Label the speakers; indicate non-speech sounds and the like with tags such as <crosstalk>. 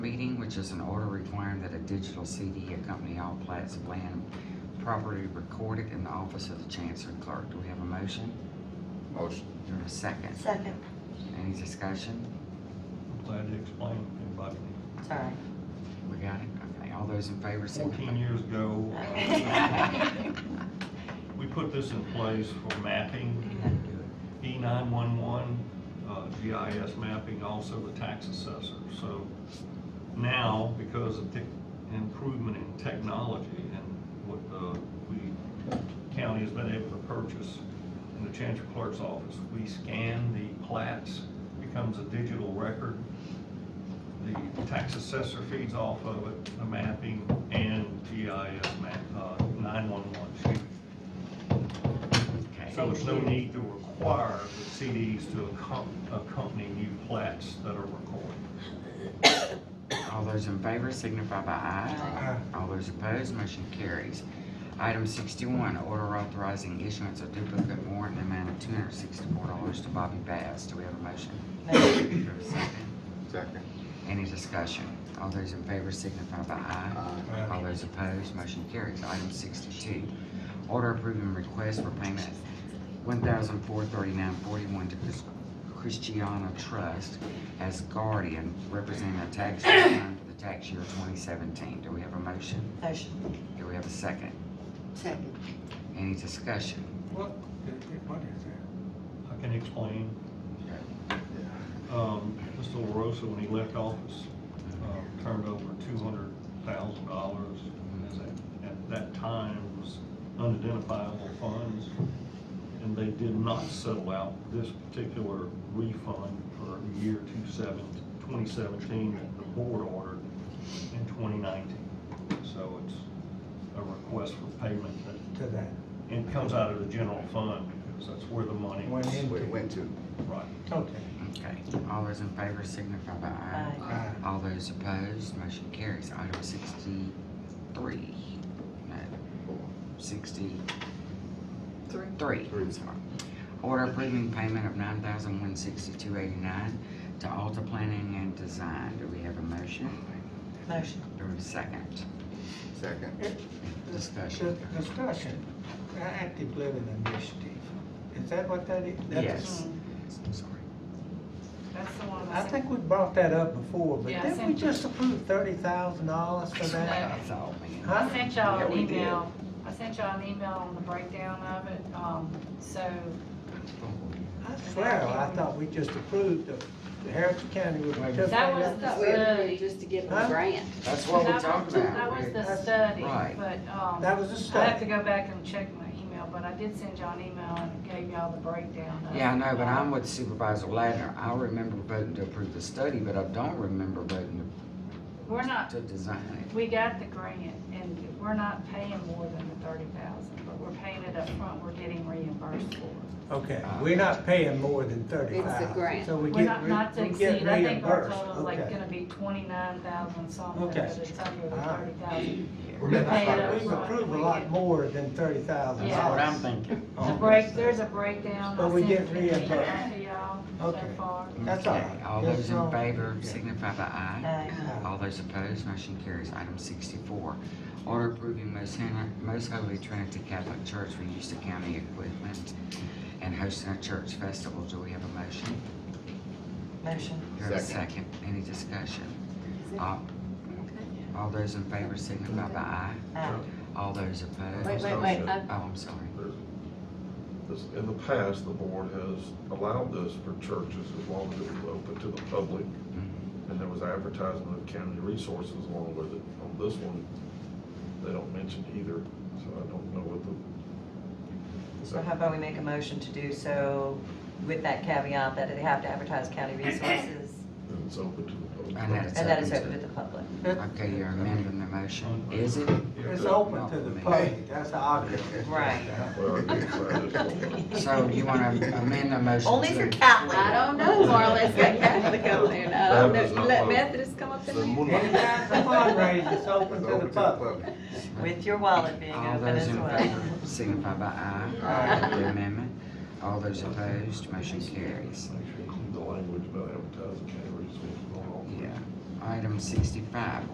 Speaker 1: meeting, which is an order requiring that a digital CD accompany all plats of land properly recorded in the office of the chancery clerk. Do we have a motion?
Speaker 2: Motion.
Speaker 1: Do we have a second?
Speaker 3: Second.
Speaker 1: Any discussion?
Speaker 4: I'm glad you explained, everybody.
Speaker 5: <laughs>
Speaker 3: Sorry.
Speaker 1: We got it? Okay, all those in favor signify.
Speaker 4: Fourteen years ago,
Speaker 5: <laughs>
Speaker 4: uh, we put this in place for mapping, E nine-one-one, uh, GIS mapping, also the tax assessor. So now, because of the improvement in technology and what, uh, we, county has been able to purchase in the Chancery Clerk's office, we scan the plats, becomes a digital record. The tax assessor feeds off of it, the mapping and GIS map, uh, nine-one-one sheet.
Speaker 1: Okay.
Speaker 4: So there's no need to require the CDs to accom- accompany new plats that are recorded.
Speaker 1: All those in favor signify by aye. All those opposed, motion carries. Item sixty-one, order authorizing issuance of duplicate warrant in the amount of two hundred sixty-four dollars to Bobby Bass. Do we have a motion? Do we have a second?
Speaker 2: Second.
Speaker 1: Any discussion? All those in favor signify by aye.
Speaker 2: Aye.
Speaker 1: All those opposed, motion carries. Item sixty-two, order approving request for payment one thousand four thirty-nine forty-one to Chris- Christiana Trust as guardian representing a tax <coughs> return for the tax year twenty seventeen. Do we have a motion?
Speaker 3: Motion.
Speaker 1: Do we have a second?
Speaker 3: Second.
Speaker 1: Any discussion?
Speaker 6: What, what is that?
Speaker 4: I can explain. Um, Mr. LaRosa, when he left office, uh, turned over two hundred thousand dollars. At that time, it was unidentifiable funds, and they did not settle out this particular refund for year two seven, twenty seventeen that the board ordered in twenty nineteen. So it's a request for payment that
Speaker 6: To that,
Speaker 4: and it comes out of the general fund, because that's where the money
Speaker 6: Went
Speaker 4: is.
Speaker 6: in.
Speaker 2: Where it went to.
Speaker 4: Right.
Speaker 6: okay.
Speaker 1: Okay, all those in favor signify by aye.
Speaker 6: Aye.
Speaker 1: All those opposed, motion carries. Item sixty-three, no, sixty-three, I'm sorry. Order approving payment of nine thousand one sixty-two eighty-nine to Alta Planning and Design. Do we have a motion?
Speaker 3: Motion.
Speaker 1: Do we have a second?
Speaker 2: Second.
Speaker 1: Discussion.
Speaker 6: Dis- Discussion, active living initiative, is that what that is? That's-
Speaker 1: Yes.
Speaker 7: Mm.
Speaker 1: I'm sorry.
Speaker 7: That's the one.
Speaker 6: I think we brought that up before, but
Speaker 7: Yeah,
Speaker 6: didn't
Speaker 7: same.
Speaker 6: we just approve thirty thousand dollars for that?
Speaker 1: That's all, man.
Speaker 6: Huh?
Speaker 7: I sent y'all
Speaker 1: Yeah,
Speaker 7: an
Speaker 1: we did.
Speaker 7: email, I sent y'all an email on the breakdown of it, um, so,
Speaker 6: I swear, I thought we just approved the, the Harrison County would participate.
Speaker 7: that was the study.
Speaker 8: Just to give
Speaker 6: Huh?
Speaker 8: them a grant.
Speaker 1: That's what we're
Speaker 7: That was-
Speaker 1: talking about.
Speaker 7: That was the
Speaker 6: That's-
Speaker 7: study,
Speaker 1: Right.
Speaker 7: but, um,
Speaker 6: That was the
Speaker 7: I have to
Speaker 6: study.
Speaker 7: go back and check my email, but I did send y'all an email and gave y'all the breakdown of it.
Speaker 1: Yeah, I know, but I'm with Supervisor Ladner. I remember voting to approve the study, but I don't remember voting
Speaker 7: We're
Speaker 1: to-
Speaker 7: not,
Speaker 1: to design
Speaker 7: we got the grant, and we're not paying more than the thirty thousand, but we're paying it up front. we're getting reimbursed for it.
Speaker 6: Okay, we're not paying more than thirty thousand.
Speaker 8: grant.
Speaker 6: So we
Speaker 7: We're
Speaker 6: get,
Speaker 7: not, not to
Speaker 6: re- we get
Speaker 7: exceed, I think our
Speaker 6: reimbursed,
Speaker 7: total is like
Speaker 6: okay.
Speaker 7: gonna be twenty-nine thousand something, but
Speaker 6: Okay. Ah.
Speaker 7: it's under the
Speaker 6: All right.
Speaker 7: thirty thousand.
Speaker 1: it.
Speaker 7: We're paying it up
Speaker 6: We've
Speaker 7: front.
Speaker 6: approved a lot more than thirty thousand
Speaker 1: That's what I'm
Speaker 6: dollars.
Speaker 1: thinking.
Speaker 7: The break, there's a breakdown.
Speaker 6: But
Speaker 7: I
Speaker 6: we
Speaker 7: sent
Speaker 6: get
Speaker 7: it to
Speaker 6: reimbursed.
Speaker 7: y'all So
Speaker 6: Okay.
Speaker 7: far.
Speaker 6: That's all
Speaker 1: Okay,
Speaker 6: right.
Speaker 1: All
Speaker 6: That's
Speaker 1: those in
Speaker 6: all.
Speaker 1: favor
Speaker 6: Yeah.
Speaker 1: signify by aye.
Speaker 3: Aye.
Speaker 1: All those opposed, motion carries. Item sixty-four, order approving Most Hen- Most Holy Trinity Catholic Church for use of county equipment and hosting a church festival. Do we have a motion?
Speaker 3: Motion.
Speaker 1: Do we have a second?
Speaker 2: Second.
Speaker 1: Any discussion? All all those in favor signify by aye.
Speaker 3: Aye.
Speaker 1: All those opposed?
Speaker 8: Wait, wait, uh, wait,
Speaker 1: Oh,
Speaker 8: I-
Speaker 1: I'm sorry.
Speaker 9: This- In the past, the board has allowed this for churches as long as it was open to the public,
Speaker 1: Mm-hmm.
Speaker 9: and there was advertisement of county resources along with it. On this one, they don't mention either, so I don't know what the,
Speaker 5: So how about we make a motion to do so with that caveat that they have to advertise county resources
Speaker 9: it's open to the public.
Speaker 1: And that it's
Speaker 5: and that
Speaker 1: open
Speaker 5: is
Speaker 1: to
Speaker 5: open to the public?
Speaker 1: Okay, you're amending the motion. Is it?
Speaker 6: It's open to the public, that's the argument.
Speaker 5: Right.
Speaker 9: Well, I guess that is
Speaker 8: <laughs>
Speaker 9: one.
Speaker 1: So you want to amend the motion?
Speaker 5: Only if
Speaker 1: to-
Speaker 5: you're Catholic.
Speaker 8: I don't know, Marla, it's got Catholic up there, and I don't
Speaker 9: That was not
Speaker 8: know, you Uh, let
Speaker 9: public.
Speaker 8: Methodists come up in there?
Speaker 6: Anytime it's a fundraiser, it's open to the public.
Speaker 5: With your wallet being
Speaker 1: All
Speaker 5: open
Speaker 1: those
Speaker 5: as
Speaker 1: in
Speaker 5: well.
Speaker 1: favor signify by aye.
Speaker 6: Aye.
Speaker 1: The amendment. All those opposed, motion carries.
Speaker 9: The language about advertising county resources on all.
Speaker 1: Yeah, Item sixty-five,